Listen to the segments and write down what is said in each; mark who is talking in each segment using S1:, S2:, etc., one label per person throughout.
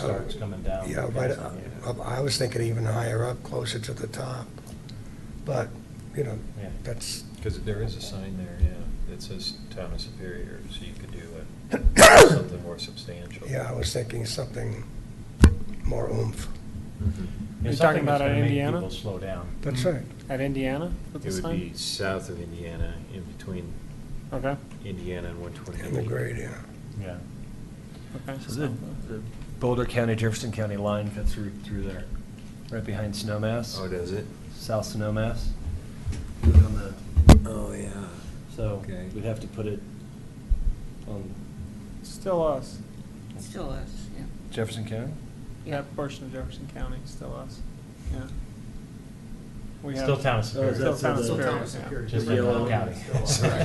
S1: starts coming down.
S2: Yeah, right, uh, I I was thinking even higher up, closer to the top. But, you know,
S1: Yeah.
S2: that's,
S3: Because there is a sign there, yeah, that says Town of Superior, so you could do a- something more substantial.
S2: yeah, I was thinking something more oomph.
S3: Mhm.
S1: Yeah, something
S4: You're talking
S1: that's
S4: about
S1: gonna make
S4: Indiana?
S1: People slow down.
S2: That's right.
S4: At Indiana with the
S3: It would be
S4: sign?
S3: south of Indiana, in between
S4: Okay,
S3: Indiana and one
S2: In the
S3: twenty-eight.
S2: grade, yeah.
S1: Yeah.
S4: okay.
S5: So the the Boulder County, Jefferson County line cuts through, through there, right behind
S3: Oh,
S5: Snowmass,
S3: does it?
S5: South Snowmass. On the-
S3: Oh, yeah.
S5: So
S3: Okay.
S5: we'd have to put it on
S4: Still us.
S6: Still us, yeah.
S5: Jefferson County?
S4: That portion of Jefferson County, still us, yeah. We have-
S1: Still
S5: Oh,
S1: town of
S5: is
S1: Superior.
S4: Still
S5: that
S4: town of
S5: the-
S4: Superior,
S1: Just
S5: The
S1: like
S5: yellow-
S1: Boulder County.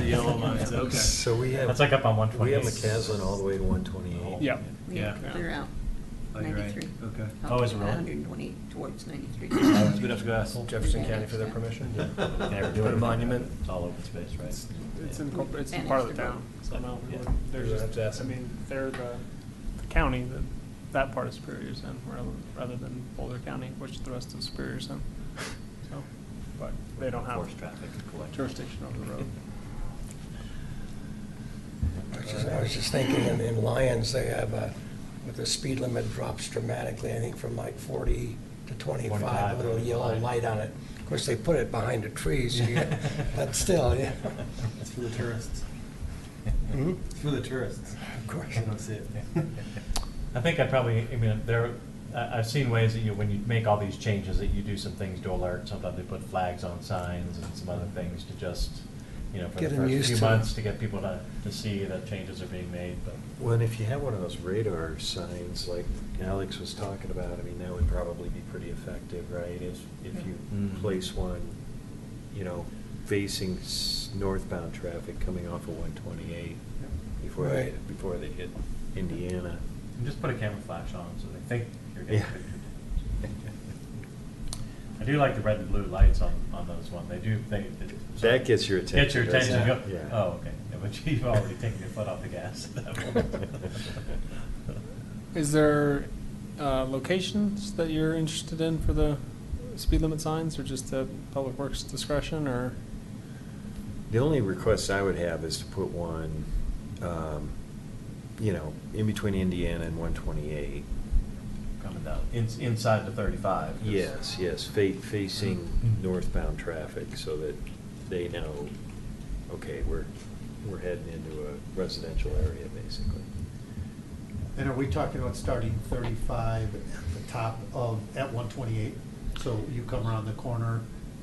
S5: The yellow lines, okay.
S3: So we have.
S1: That's like up on
S3: We
S1: 128.
S3: have McCaslin all the way to one twenty-eight.
S4: yeah.
S6: Yeah,
S4: Yeah.
S6: clear out.
S5: Oh, you're right.
S6: 93.
S5: Okay.
S6: Up
S1: Oh, is it really?
S6: 120 towards 93.
S5: So Oh, We'd have to go ask Jefferson County for their permission
S1: Can
S5: to
S1: ever do
S5: put a
S1: it.
S5: monument.
S1: It's all open space, right?
S4: It's
S1: Yeah.
S4: in, corpor- it's in part of the town, so no, we wouldn't-
S3: You would have
S4: there's
S3: to ask
S4: just, I
S3: them.
S4: mean, they're the the county that, that part of Superior's in, rather- rather than Boulder County, which the rest of Superior's in. So, But they don't have
S1: Force traffic to collect.
S4: jurisdiction over the road.
S2: I was just- I was just thinking, in- in Lyons, they have a, with the speed limit drops dramatically, I think from like 40 to 25,
S1: 25,
S2: a little yellow
S1: right.
S2: light on it. Of course, they put it behind the trees, so you- but still, yeah.
S7: It's for the tourists.
S2: Hmm?
S7: It's for the tourists.
S2: Of course.
S7: They don't see it.
S1: I think I probably, I mean, there, I, I've seen ways that you, when you make all these changes, that you do some things to alert, sometimes they put flags on signs and some other things to just, you know, for
S2: Get
S1: the
S2: 'em
S1: first
S2: used
S1: few
S2: to it.
S1: months to get people to, to see that changes are being made, but.
S3: Well, and if you have one of those radar signs like Alex was talking about, I mean, that would probably be pretty effective, right? If, if you
S1: Mm.
S3: place one, you know, facing s- northbound traffic coming off of one twenty-eight before they,
S2: Right.
S3: before they hit Indiana.
S1: And just put a camera flash on so they think you're getting
S3: Yeah.
S1: pictured. I do like the red and blue lights on, on those one, they do, they. it-
S3: That gets your
S1: Gets your
S3: attention, doesn't
S1: attention,
S3: it?
S1: you go,
S3: Yeah.
S1: oh, okay, Yeah, but you've already taken your foot off the gas at that point.
S4: Is there uh, locations that you're interested in for the speed limit signs, or just the public works discretion, or?
S3: The only request I would have is to put one, um, you know, in between Indiana and one twenty-eight.
S1: Coming down, in, inside the thirty-five. 'cause-
S3: Yes, yes, fa- facing
S1: Mm-hmm.
S3: northbound traffic so that they know, okay, we're, we're heading into a residential area, basically.
S7: And are we talking about starting 35 at the top of, at 128? So you come around the corner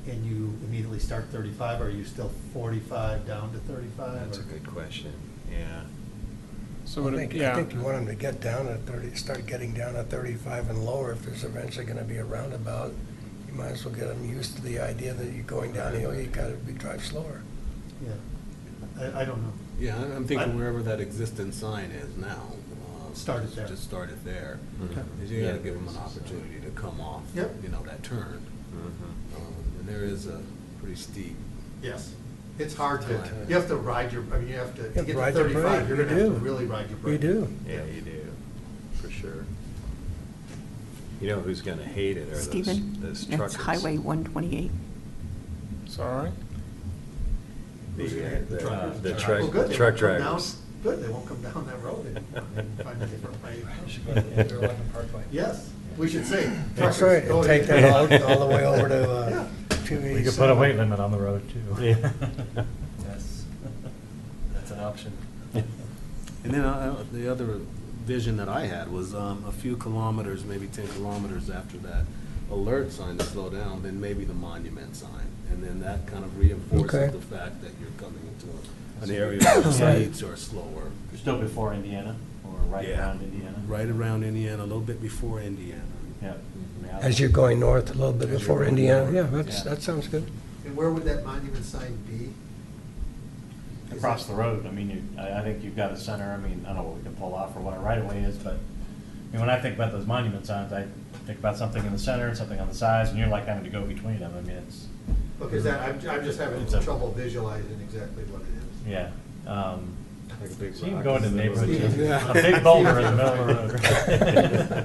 S7: and you immediately start 35, or are you still 45 down to 35?
S3: That's a
S7: or-
S3: good question, yeah.
S4: So
S2: I
S4: would
S2: think,
S4: it,
S2: I
S4: yeah,
S2: think you want them to get down at 30, start getting down at 35 and lower. If there's eventually going to be a roundabout, you might as well get them used to the idea that you're going downhill, you got to drive slower.
S7: Yeah. I, I don't know.
S8: Yeah, I'm I'm
S7: I-
S8: thinking wherever that existing sign is now. uh,
S7: Start it there.
S8: Just start it there.
S3: Okay.
S8: 'Cause you
S3: Yeah,
S8: gotta give them
S3: there
S8: an
S3: is a sign.
S8: opportunity to come off,
S7: Yep.
S8: you know, that turn.
S3: Mm-hmm.
S8: Um, And there is a pretty steep,
S7: Yes. It's hard to,
S8: Time.
S7: you have to ride your, I mean, you have to,
S2: Yeah,
S7: to get to
S2: ride your
S7: 35,
S2: brake.
S7: you're
S2: You
S7: going to have to
S2: do.
S7: really ride your brake.
S2: We do.
S3: Yeah, you do, for sure. You know who's gonna hate it are those, those
S6: Stephen,
S3: truckers.
S6: that's Highway 128.
S4: sorry?
S3: The, uh, the-
S1: Truckers.
S3: the
S7: Well,
S3: truck,
S7: good, they
S3: truck
S7: won't come down-
S3: drivers.
S7: Good, they won't come down that road anymore. They can Find a different way. Yes, we should say.
S2: That's
S7: truckers,
S2: right,
S7: go
S2: and take
S7: ahead.
S2: that all, all the way over to, uh,
S7: Yeah.
S2: two eighty-seven.
S1: We could put a weight limit on the road too.
S3: Yeah.
S5: That's, that's an option.
S8: and then I- I- the other vision that I had was um, a few kilometers, maybe 10 kilometers after that alert sign to slow down, then maybe the monument sign. And then that kind of
S2: Okay.
S8: reinforces the fact that you're coming into an area where speeds are slower.
S1: Still before Indiana or right
S8: Yeah.
S1: around Indiana.
S8: Right around Indiana, a little bit before Indiana.
S1: Yeah.
S2: As you're going north a little bit
S8: As you're
S2: before
S8: going
S2: Indiana,
S8: north.
S2: yeah, that's,
S1: Yeah.
S2: that sounds good.
S7: And where would that monument sign be?
S1: Across the road, I mean, you, I, I think you've got a center, I mean, I don't know what we can pull off or what a right of way is, but, I mean, when I think about those monument signs, I think about something in the center and something on the sides, and you're like having to go between them, I mean, it's,
S7: Because that, I'm, I'm just having
S1: Mm-hmm. It's a-
S7: trouble visualizing exactly what it is.
S1: yeah. Um,
S3: Like a big
S1: so you can
S3: rock
S1: go
S3: in
S1: into
S3: the middle of
S1: neighborhoods,
S3: the-
S1: a big boulder in the middle of the road.